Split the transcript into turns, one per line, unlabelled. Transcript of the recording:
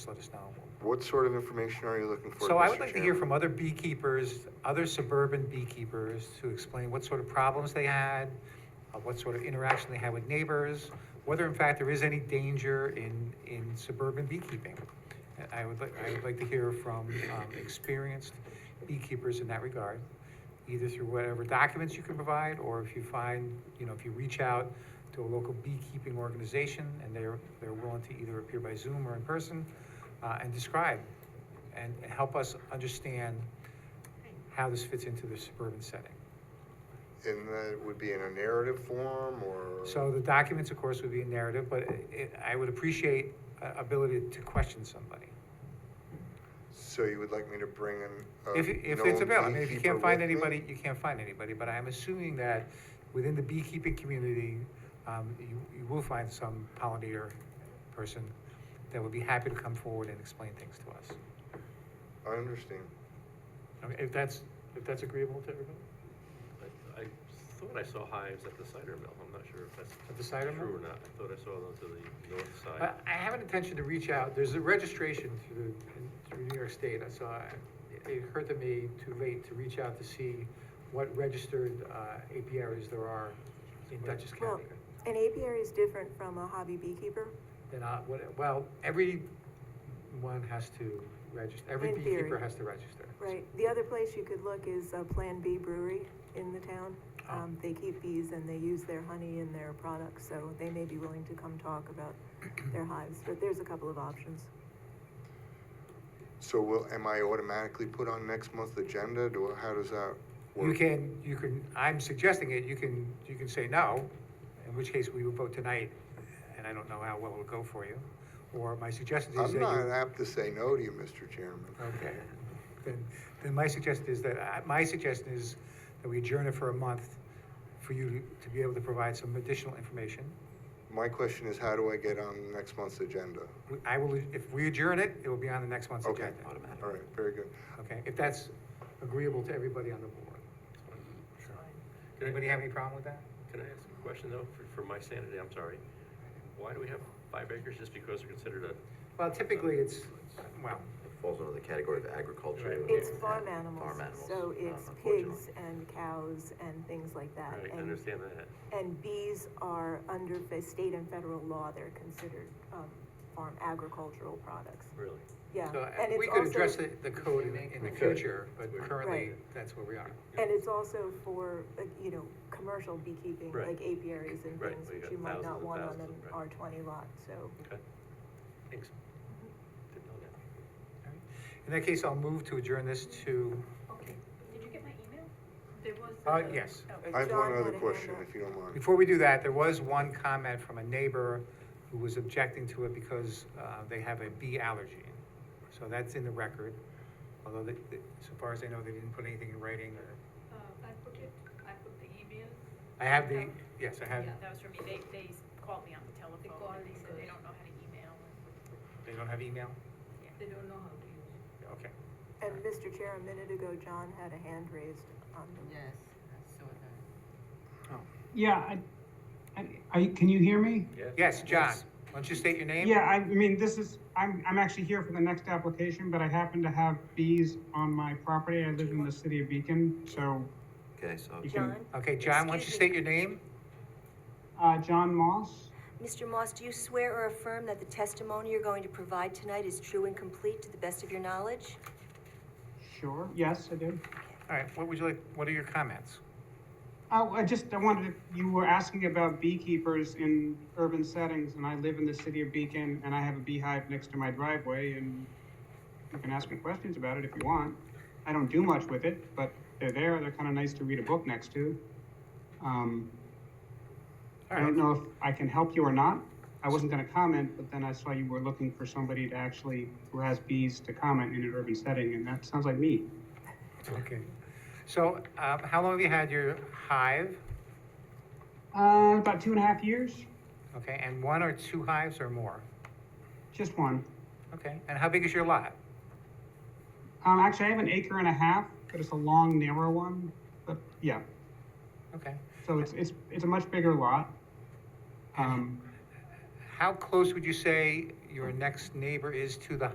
Just let us know.
What sort of information are you looking for?
So I would
Mr.
like to hear
Chairman?
from other beekeepers, other suburban beekeepers, to explain what sort of problems they had, uh, what sort of interaction they had with neighbors, whether in fact there is any danger in, in suburban beekeeping. And I would, like- I would like to hear from um, experienced beekeepers in that regard, either through whatever documents you can provide, or if you find, you know, if you reach out to a local beekeeping organization and they're, they're willing to either appear by Zoom or in person, uh, and describe and and help us understand how this fits into the suburban setting.
And that would be in a narrative form or?
So the documents, of course, would be a narrative, but it, I would appreciate uh, ability to question somebody.
So you would like me to bring in? a
If, if
known
it's available, I mean, if you
Uh, beekeeper
can't find
with me?
anybody, you can't find anybody, but I'm assuming that within the beekeeping community, um, you, you will find some pollinator person that would be happy to come forward and explain things to us.
I understand.
I mean, If that's, if that's agreeable to everybody?
I I thought I saw hives at the cider mill, I'm not sure if that's
At the cider mill?
True or not, I thought I saw them to the north
I
side.
I have an intention to reach out, there's a registration through, the- through New York State, so I, it occurred to me too late to reach out to see what registered uh, apiaries there are in Dutchess
Well,
County.
an apiary is different from a hobby beekeeper.
And I, uh, what- well, every one has to register, every
In theory.
beekeeper has to register.
Right, the other place you could look is uh, Plan B Brewery in the town. Um, They keep bees and they use their honey in their products, so they may be willing to come talk about their hives, but there's a couple of options.
So will, am I automatically put on next month's agenda? Do, how does that work?
You can, you can, I'm suggesting it, you can, you can say no, in which case we would vote tonight, and I don't know how well it would go for you. Or my suggestion is that
I'm
you.
not apt to say no to you, Mr. Chairman.
Okay, then, then my suggestion is that, I- my suggestion is that we adjourn it for a month for you to- to be able to provide some additional information.
My question is, how do I get on next month's agenda?
We- I will, if we adjourn it, it will be on the next month's
Okay.
agenda.
All right, very good.
Okay, if that's agreeable to everybody on the board.
Can I,
Anybody have any problem with that?
can I ask a question though, for, for my sanity, I'm sorry? Why do we have five acres just because they're considered a,
Well, typically it's, well,
It falls under the category of agriculture.
Right.
It's
and
farm animals,
farm animals,
so
um,
it's
unfortunately.
pigs and cows and things like that.
right, I
And-
understand that.
And bees are under fe- state and federal law, they're considered um, farm agricultural products.
Really?
Yeah,
so uh,
and
we
it's
could address
also,
the, the code in, in the
We could.
future, but
Right.
currently,
Right.
that's where we are.
and it's also for, like, you know, commercial beekeeping,
Right.
like apiaries and
Right,
things,
we
which
got
you might
thousands
not
and
want on
thousands
an
of- right.
R twenty lot, so.
Okay. Thanks. Didn't know that.
All right. In that case, I'll move to adjourn this to,
Okay, did you get my email? There was.
Uh,
a-
yes.
oh.
I have
John
one
had
other
a hand
question,
up.
if you don't mind.
Before we do that, there was one comment from a neighbor who was objecting to it because uh, they have a bee allergy. So that's in the record, although they- they- so far as I know, they didn't put anything in writing or,
Uh, I put it, I put the email.
I have the, yes, I have,
Yeah, that was from me, they, they called me on the telephone and they said they don't know how to email.
they don't have email?
They don't know how to use it.
Okay.
And Mr. Chair, a minute ago, John had a hand raised on the.
Yes, I saw that.
Yeah, I, I, I, can you hear me?
Yes, John, why don't you state your name?
Yeah, I mean, this is, I'm, I'm actually here for the next application, but I happen to have bees on my property. I live in the city of Beacon, so,
Okay, so
You can-
John,
Okay, John, why don't you
Excuse
state
me.
your name?
uh, John Moss.
Mr. Moss, do you swear or affirm that the testimony you're going to provide tonight is true and complete to the best of your knowledge?
Sure, yes, I do.
All right, what would you like, what are your comments?
Oh, I just, I wanted, to- you were asking about beekeepers in urban settings, and I live in the city of Beacon, and I have a beehive next to my driveway, and you can ask me questions about it if you want. I don't do much with it, but they're there, they're kind of nice to read a book next to. Um, I don't know if I can help you or not. I wasn't gonna comment, but then I saw you were looking for somebody to actually, who has bees to comment in an urban setting, and that sounds like me.
Okay. So um, how long have you had your hive?
Uh, about two and a half years,
Okay, and one or two hives or more?
just one.
Okay, and how big is your lot?
Um, actually, I have an acre and a half, but it's a long, narrow one. But yeah,
Okay.
so it's it's it's a much bigger lot. Um,
How close would you say your next neighbor is to the